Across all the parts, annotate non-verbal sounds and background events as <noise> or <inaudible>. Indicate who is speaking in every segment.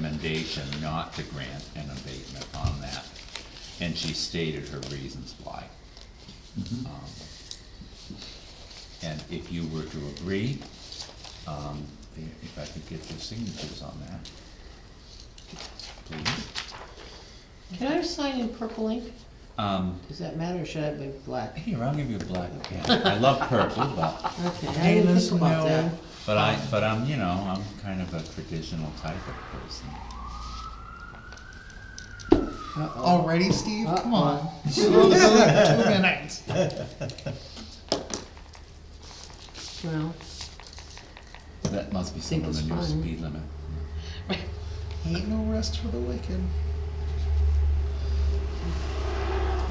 Speaker 1: recommendation not to grant an abatement on that, and she stated her reasons why. Um, And if you were to agree, um, if I could get your signatures on that, please.
Speaker 2: Can I sign in purple ink?
Speaker 1: Um,
Speaker 2: Does that matter, or should I be black?
Speaker 1: Here, I'll give you a black pen. I love purple, but,
Speaker 2: <laughs> Okay, I didn't
Speaker 3: Yes,
Speaker 2: think about
Speaker 3: no.
Speaker 2: that.
Speaker 1: but I, but I'm, you know, I'm kind of a traditional type of person.
Speaker 2: Uh-oh.
Speaker 3: Already, Steve?
Speaker 2: Uh-oh.
Speaker 3: Come on. Uh-uh. <laughs> Two minutes.
Speaker 2: Well,
Speaker 1: That must be
Speaker 2: Think
Speaker 1: some of the
Speaker 2: it's
Speaker 1: new
Speaker 2: fine.
Speaker 1: speed limit.
Speaker 3: Ain't no rest for the wicked.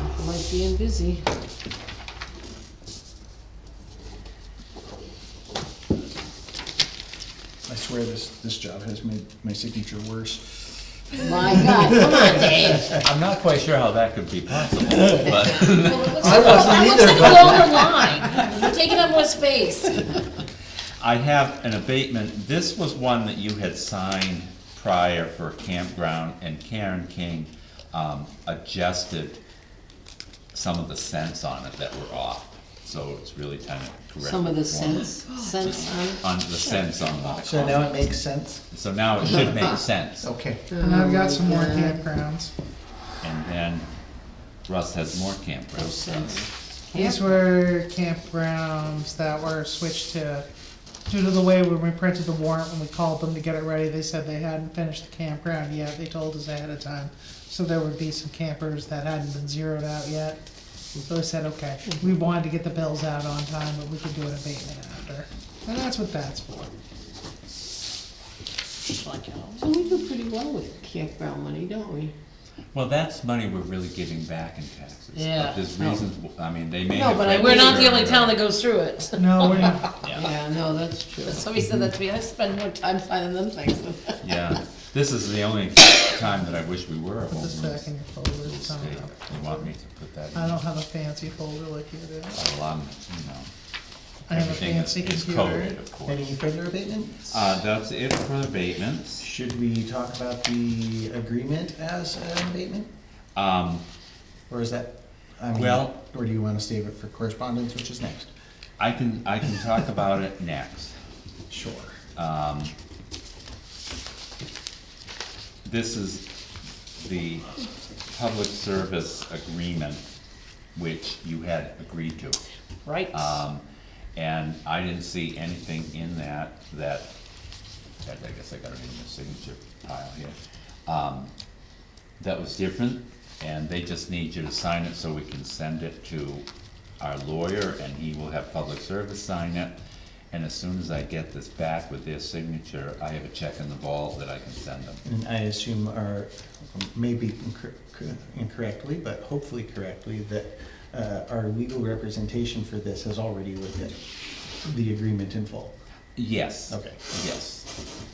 Speaker 2: I like being busy.
Speaker 3: I swear this, this job has made my signature worse.
Speaker 2: <laughs> My God, come on, Dave.
Speaker 1: I'm not quite sure how that could be possible, but,
Speaker 3: I wasn't
Speaker 2: That looks like a longer line. You're taking up more space.
Speaker 1: I have an abatement, this was one that you had signed prior for a campground, and Karen King, um, adjusted some of the scents on it that were off, so it's really kind of correct.
Speaker 2: Some of the sense, sense on
Speaker 1: On the scents on the.
Speaker 3: So now it makes sense?
Speaker 1: So now it should make sense.
Speaker 3: Okay.
Speaker 4: And I've
Speaker 2: Oh,
Speaker 4: got some more
Speaker 2: God.
Speaker 4: campgrounds.
Speaker 1: And then Russ has more campgrounds.
Speaker 2: sense.
Speaker 4: These
Speaker 2: Yeah.
Speaker 4: were campgrounds that were switched to, due to the way when we printed the warrant, when we called them to get it ready, they said they hadn't finished the campground yet, they told us ahead of time. So there would be some campers that hadn't been zeroed out yet. So I said, okay, we
Speaker 2: Mm-hmm.
Speaker 4: wanted to get the bills out on time, but we could do an abatement after. And that's what that's for.
Speaker 2: So we do pretty well with campground money, don't we?
Speaker 1: Well, that's money we're really giving back in taxes.
Speaker 2: Yeah.
Speaker 1: But there's reasons, w- I mean, they may
Speaker 2: No,
Speaker 1: have.
Speaker 2: but I-
Speaker 1: read
Speaker 5: We're not the
Speaker 1: through
Speaker 5: only
Speaker 1: it.
Speaker 5: town that goes through it.
Speaker 4: No, we're not.
Speaker 1: Yeah,
Speaker 2: Yeah, no, that's true.
Speaker 5: Somebody said that to me, I spend more time signing them things than
Speaker 1: yeah. This is the only time that I wish we were at Home
Speaker 4: This
Speaker 1: Rule
Speaker 4: back in your folder
Speaker 1: State.
Speaker 4: somehow.
Speaker 1: You want me to put that in?
Speaker 4: I don't have a fancy folder like you do.
Speaker 1: Well, I'm, you know.
Speaker 4: I have a
Speaker 1: everything is-
Speaker 4: fancy
Speaker 1: is
Speaker 4: computer.
Speaker 1: coded, Oh, of course.
Speaker 3: Any further abatements?
Speaker 1: Uh, that's it for abatements.
Speaker 3: Should we talk about the agreement as an abatement?
Speaker 1: Um,
Speaker 3: Or is that, I mean,
Speaker 1: Well-
Speaker 3: or do you wanna save it for correspondence, which is next?
Speaker 1: I can, I can talk about it next.
Speaker 3: Sure.
Speaker 1: This is the public service agreement which you had agreed to.
Speaker 5: Right.
Speaker 1: Um, and I didn't see anything in that, that, I I guess I got it in the signature pile here. Um, that was different, and they just need you to sign it so we can send it to our lawyer, and he will have public service sign it. And as soon as I get this back with their signature, I have a check in the vault that I can send them.
Speaker 3: And I assume our, maybe incor- cor- incorrectly, but hopefully correctly, that uh, our legal representation for this has already looked at the agreement in full.
Speaker 1: Yes.
Speaker 3: Okay.
Speaker 1: Yes.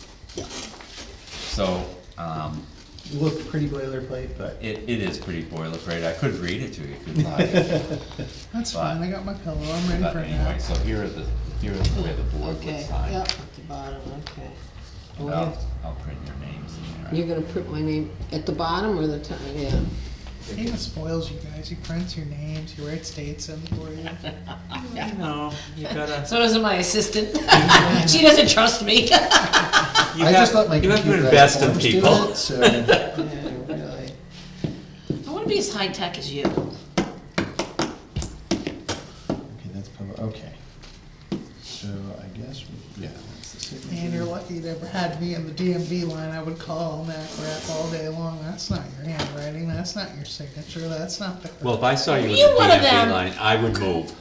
Speaker 1: So, um,
Speaker 3: Looked pretty boilerplate, but
Speaker 1: It, it is pretty boilerplate, I could read it to you if you'd like.
Speaker 4: That's fine, I got my pillow, I'm ready
Speaker 1: But
Speaker 4: for it now.
Speaker 1: anyway, so here are the, here is where the board would
Speaker 2: Okay,
Speaker 1: sign.
Speaker 2: yep, at the bottom, okay. Do
Speaker 1: And
Speaker 2: I
Speaker 1: I'll,
Speaker 2: have-
Speaker 1: I'll print your names in
Speaker 2: You're
Speaker 1: there.
Speaker 2: gonna print my name at the bottom or the top, yeah.
Speaker 4: He even spoils you guys, he prints your names, he writes dates in
Speaker 1: <laughs>
Speaker 4: for you.
Speaker 6: No, you gotta.
Speaker 5: So doesn't my assistant. <laughs> She doesn't trust me. <laughs>
Speaker 6: You
Speaker 3: I
Speaker 6: have,
Speaker 3: just let my
Speaker 6: you have to
Speaker 3: computer
Speaker 6: invest in
Speaker 3: always do
Speaker 6: people.
Speaker 3: it,
Speaker 6: <laughs>
Speaker 3: so
Speaker 2: Yeah, really.
Speaker 5: I wanna be as high-tech as you.
Speaker 3: okay, that's probably okay. So I guess we, yeah, that's the signature.
Speaker 4: And you're lucky you never had me in the DMV line, I would call on that crap all day long, that's not your handwriting, that's not your signature, that's not the.
Speaker 6: Well, if I saw you in the
Speaker 5: You one of
Speaker 1: E
Speaker 6: DMV
Speaker 5: them.
Speaker 6: line, I would move.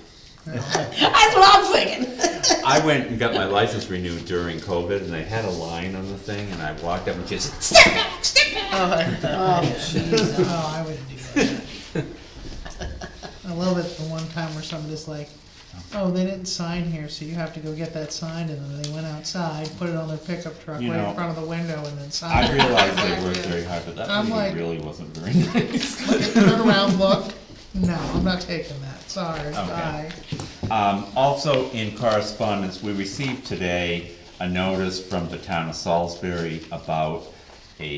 Speaker 5: That's what I'm thinking.
Speaker 6: I went and got my license renewed during COVID and they had a line on the thing and I walked up and just, step back, step back.
Speaker 2: Oh, jeez.
Speaker 4: Oh, I wouldn't do that.
Speaker 1: <laughs>
Speaker 4: I love it, the one time where somebody's like, oh, they didn't sign here, so you have to go get that signed, and then they went outside, put it on their pickup truck
Speaker 1: You
Speaker 4: right
Speaker 1: know,
Speaker 4: in front of the window, and then signed <laughs>
Speaker 1: I
Speaker 4: it.
Speaker 1: realized they worked very hard, but that
Speaker 4: I'm like-
Speaker 1: meeting really wasn't very <laughs> nice.
Speaker 4: Turn around, look, no, I'm not taking that, sorry, bye.
Speaker 1: Um, also in correspondence, we received today a notice from the town of Salisbury about